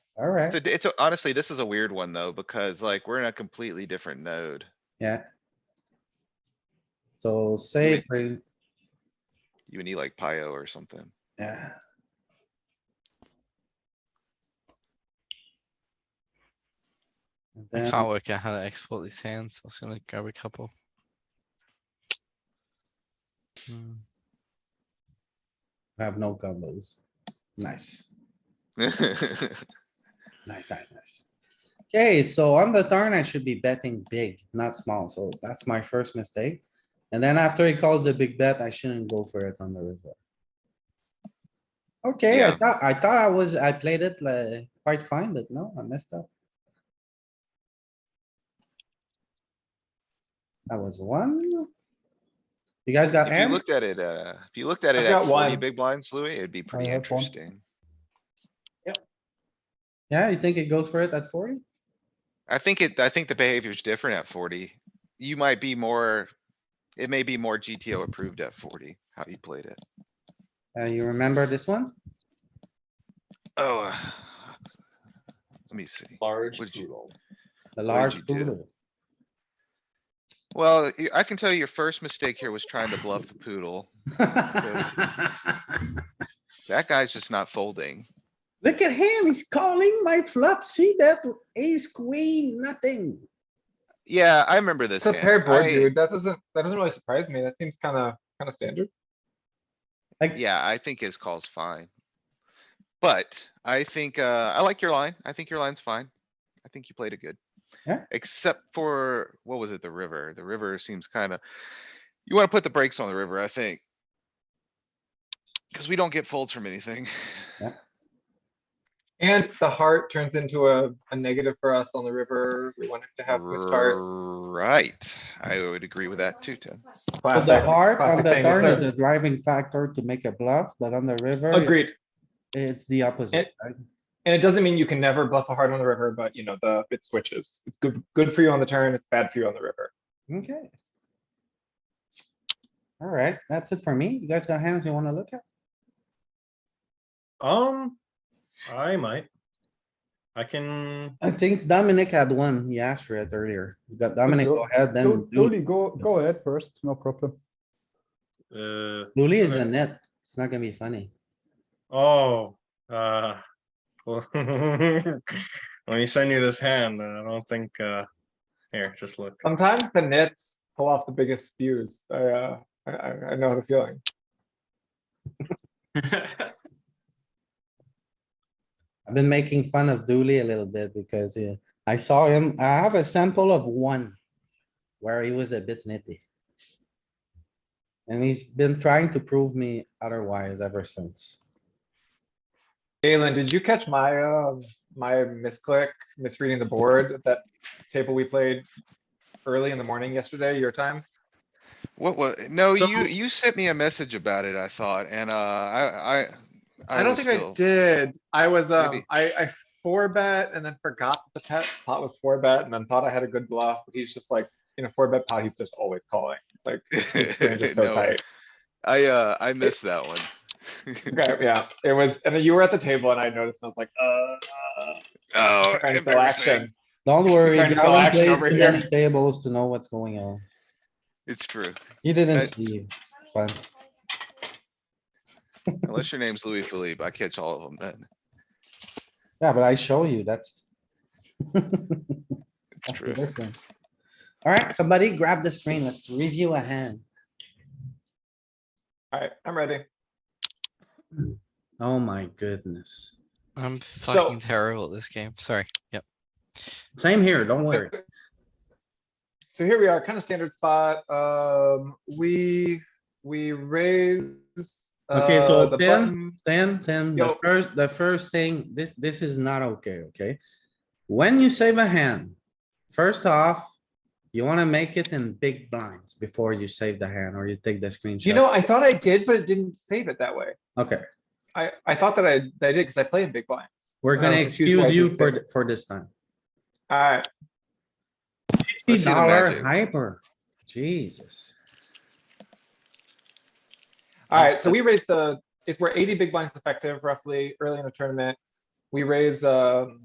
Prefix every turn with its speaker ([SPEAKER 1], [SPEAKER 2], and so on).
[SPEAKER 1] alright,
[SPEAKER 2] It's, a- it's, a- honestly, this is a weird one though, because like we're in a completely different node.
[SPEAKER 1] yeah. So say, for-
[SPEAKER 2] You would need like Pio or something.
[SPEAKER 1] yeah, And
[SPEAKER 3] I
[SPEAKER 1] then-
[SPEAKER 3] can't work out how to export these hands. I was gonna grab a couple. Hmm.
[SPEAKER 1] I have no combos. Nice, nice, nice, nice. Okay, so on the turn, I should be betting big, not small, so that's my first mistake. And then after he calls the big bet, I shouldn't go for it on the river. Okay, I
[SPEAKER 2] Yeah.
[SPEAKER 1] thought, I thought I was, I played it like quite fine, but no, I messed up. That was one. You guys got
[SPEAKER 2] If you
[SPEAKER 1] hands?
[SPEAKER 2] looked at it, uh, if you looked at
[SPEAKER 4] I've
[SPEAKER 2] it at
[SPEAKER 4] got
[SPEAKER 2] forty
[SPEAKER 4] one.
[SPEAKER 2] big blinds, Louis, it'd be pretty
[SPEAKER 4] have one.
[SPEAKER 2] interesting.
[SPEAKER 1] Yeah, you think it goes for it at forty?
[SPEAKER 2] I think it, I think the behavior's different at forty. You might be more, it may be more GTO approved at forty, how you played it.
[SPEAKER 1] Uh, you remember this one?
[SPEAKER 2] Oh. uh, Let me see.
[SPEAKER 4] Large
[SPEAKER 2] Would you-
[SPEAKER 4] poodle.
[SPEAKER 1] The
[SPEAKER 2] What did
[SPEAKER 1] large
[SPEAKER 2] you do?
[SPEAKER 1] poodle.
[SPEAKER 2] Well, y- I can tell you your first mistake here was trying to bluff the poodle. That guy's just not folding.
[SPEAKER 1] Look at him, he's calling my flop, see that ace queen, nothing.
[SPEAKER 2] Yeah, I remember this
[SPEAKER 4] It's a
[SPEAKER 2] hand.
[SPEAKER 4] pair board,
[SPEAKER 2] I-
[SPEAKER 4] dude. That doesn't, that doesn't really surprise me. That seems kinda, kinda standard.
[SPEAKER 1] Like,
[SPEAKER 2] Yeah, I think his call's fine. But I think, uh, I like your line. I think your line's fine. I think you played it good.
[SPEAKER 1] Yeah.
[SPEAKER 2] Except for, what was it? The river. The river seems kinda, you wanna put the brakes on the river, I think. Cause we don't get folds from anything.
[SPEAKER 4] And the heart turns into a, a negative for us on the river. We want it to have good starts.
[SPEAKER 2] Right, I would agree with that too, Tim.
[SPEAKER 1] but the
[SPEAKER 4] Classic-
[SPEAKER 1] heart on
[SPEAKER 4] classic
[SPEAKER 1] the
[SPEAKER 4] thing. It's
[SPEAKER 1] turn is
[SPEAKER 4] a-
[SPEAKER 1] a driving factor to make a bluff, but on the river,
[SPEAKER 4] Agreed.
[SPEAKER 1] it's the opposite.
[SPEAKER 4] It- And it doesn't mean you can never bluff a heart on the river, but you know, the, it switches. It's good, good for you on the turn. It's bad for you on the river.
[SPEAKER 1] right? Okay. Alright, that's it for me. You guys got hands you wanna look at?
[SPEAKER 5] Um, I might. I can,
[SPEAKER 1] I think Dominic had one. He asked for it earlier. You got Dominic,
[SPEAKER 6] Lu-
[SPEAKER 1] go ahead, then
[SPEAKER 6] Lu- Luli,
[SPEAKER 1] Lu-
[SPEAKER 6] go, go ahead first, no problem.
[SPEAKER 5] uh,
[SPEAKER 1] Luli is a net. It's not gonna be funny.
[SPEAKER 5] oh, uh. well, When you send you this hand, I don't think, uh, here, just look.
[SPEAKER 4] Sometimes the nits pull off the biggest spews. I, uh, I, I I know the feeling.
[SPEAKER 1] I've been making fun of Dooley a little bit because uh, I saw him, I have a sample of one where he was a bit nitty. And he's been trying to prove me otherwise ever since.
[SPEAKER 4] Galen, did you catch my, um, my misclick, misreading the board at that table we played early in the morning yesterday, your time?
[SPEAKER 2] What, was no,
[SPEAKER 5] So-
[SPEAKER 2] you, you sent me a message about it, I thought, and, uh, I, I.
[SPEAKER 4] I don't
[SPEAKER 2] was
[SPEAKER 4] think I
[SPEAKER 2] still-
[SPEAKER 4] did. I was, um,
[SPEAKER 2] Maybe.
[SPEAKER 4] I, I four bet and then forgot that the pet pot was four bet and then thought I had a good bluff. but He's just like, in a four bet pot, he's just always calling. Like, his range is so
[SPEAKER 2] No,
[SPEAKER 4] tight.
[SPEAKER 2] I, uh, I missed that one.
[SPEAKER 4] Okay, yeah, it was, and then you were at the table and I noticed, and I was like, uh,
[SPEAKER 2] Oh,
[SPEAKER 4] trying to sell
[SPEAKER 2] embarrassing.
[SPEAKER 4] action.
[SPEAKER 1] Don't worry,
[SPEAKER 4] Trying to sell
[SPEAKER 1] Galen
[SPEAKER 4] action
[SPEAKER 1] plays
[SPEAKER 4] over
[SPEAKER 1] too many
[SPEAKER 4] here.
[SPEAKER 1] tables to know what's going on.
[SPEAKER 2] It's true,
[SPEAKER 1] He didn't
[SPEAKER 2] That's-
[SPEAKER 1] see, but
[SPEAKER 2] unless your name's Louis Philippe, I catch all of them then,
[SPEAKER 1] yeah, but I show you, that's. That's the
[SPEAKER 2] true.
[SPEAKER 1] difference. Alright, somebody grab the screen. Let's review a hand.
[SPEAKER 4] Alright, I'm ready.
[SPEAKER 1] Oh my goodness.
[SPEAKER 3] I'm
[SPEAKER 4] So-
[SPEAKER 3] fucking terrible at this game. Sorry. Yep.
[SPEAKER 1] Same here, don't worry.
[SPEAKER 4] So here we are, kind of standard spot. Um, we, we raise.
[SPEAKER 1] Okay, so
[SPEAKER 4] uh, the
[SPEAKER 1] 10?
[SPEAKER 4] button.
[SPEAKER 1] Then, then the
[SPEAKER 4] Yo.
[SPEAKER 1] first, the first thing, this, this is not okay, okay? When you save a hand, first off, you wanna make it in big blinds before you save the hand or you take the screenshot.
[SPEAKER 4] You know, I thought I did, but it didn't save it that way.
[SPEAKER 1] Okay,
[SPEAKER 4] I, I thought that I, that I did because I play in big blinds.
[SPEAKER 1] we're
[SPEAKER 4] And I
[SPEAKER 1] gonna
[SPEAKER 4] was confused why I
[SPEAKER 1] excuse you
[SPEAKER 4] didn't
[SPEAKER 1] for,
[SPEAKER 4] save it.
[SPEAKER 1] th- for this time.
[SPEAKER 4] Alright,
[SPEAKER 1] Fifty
[SPEAKER 2] see the
[SPEAKER 1] dollar
[SPEAKER 2] magic.
[SPEAKER 1] hyper, Jesus.
[SPEAKER 4] alright, so we raised the, if we're eighty big blinds effective roughly early in the tournament. We raise, um,